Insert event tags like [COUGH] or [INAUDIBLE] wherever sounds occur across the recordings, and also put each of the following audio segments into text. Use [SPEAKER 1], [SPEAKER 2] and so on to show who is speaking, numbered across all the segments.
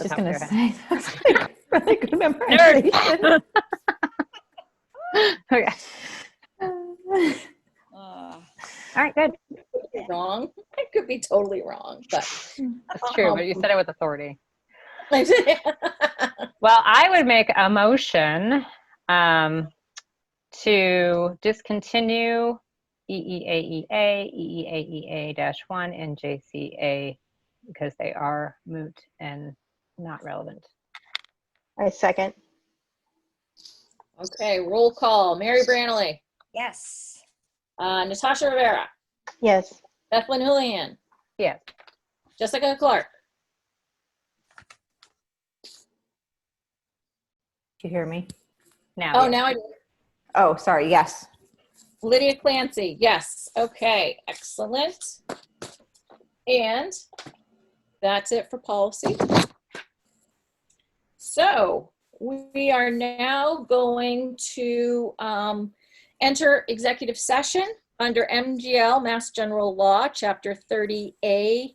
[SPEAKER 1] the
[SPEAKER 2] Just
[SPEAKER 1] top of
[SPEAKER 2] gonna
[SPEAKER 1] your head.
[SPEAKER 2] say, [LAUGHS] that's a really good memorization.
[SPEAKER 1] Nerd. [LAUGHS] okay.
[SPEAKER 2] [LAUGHS] Uh,
[SPEAKER 3] Uh,
[SPEAKER 1] All right. Good.
[SPEAKER 3] could be wrong. [LAUGHS] I could be totally wrong, but [LAUGHS]
[SPEAKER 1] That's true. But you said it with authority.
[SPEAKER 3] I
[SPEAKER 1] Well, I would make a motion um, to discontinue E EEAEA, E EEAEA-1, and JCA because they are moot and not relevant.
[SPEAKER 4] I second.
[SPEAKER 3] okay. Roll call. Mary Branley,
[SPEAKER 5] Yes.
[SPEAKER 3] uh, Natasha Rivera,
[SPEAKER 4] Yes.
[SPEAKER 3] Bethlyn Julian,
[SPEAKER 1] Yes.
[SPEAKER 3] Jessica Clark.
[SPEAKER 2] Do you hear me?
[SPEAKER 1] Now.
[SPEAKER 3] Oh,
[SPEAKER 1] yes.
[SPEAKER 3] now I do.
[SPEAKER 2] Oh, sorry, yes.
[SPEAKER 3] Lydia Clancy. Yes. Okay. Excellent. And that's it for policy. So we are now going to um, enter executive session under MGL, Mass General Law, Chapter 30A.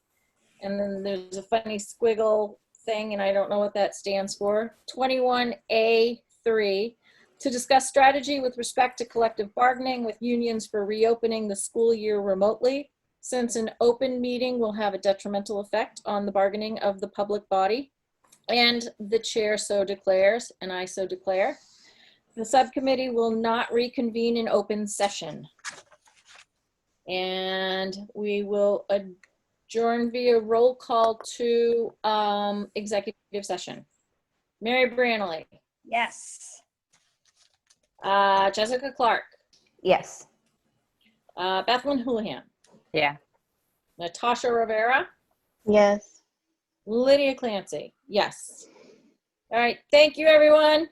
[SPEAKER 3] And then there's a funny squiggle thing, and I don't know what that stands for. 21A3 to discuss strategy with respect to collective bargaining with unions for reopening the school year remotely, since an open meeting will have a detrimental effect on the bargaining of the public body. And the chair so declares, and I so declare. The subcommittee will not reconvene in open session. And we will adjourn via roll call to um, executive session. Mary Branley.
[SPEAKER 5] Yes.
[SPEAKER 3] Uh, Jessica Clark,
[SPEAKER 2] Yes.
[SPEAKER 3] uh, Bethlyn Houlihan,
[SPEAKER 1] Yeah.
[SPEAKER 3] Natasha Rivera,
[SPEAKER 4] Yes.
[SPEAKER 3] Lydia Clancy. Yes. All right. Thank you, everyone.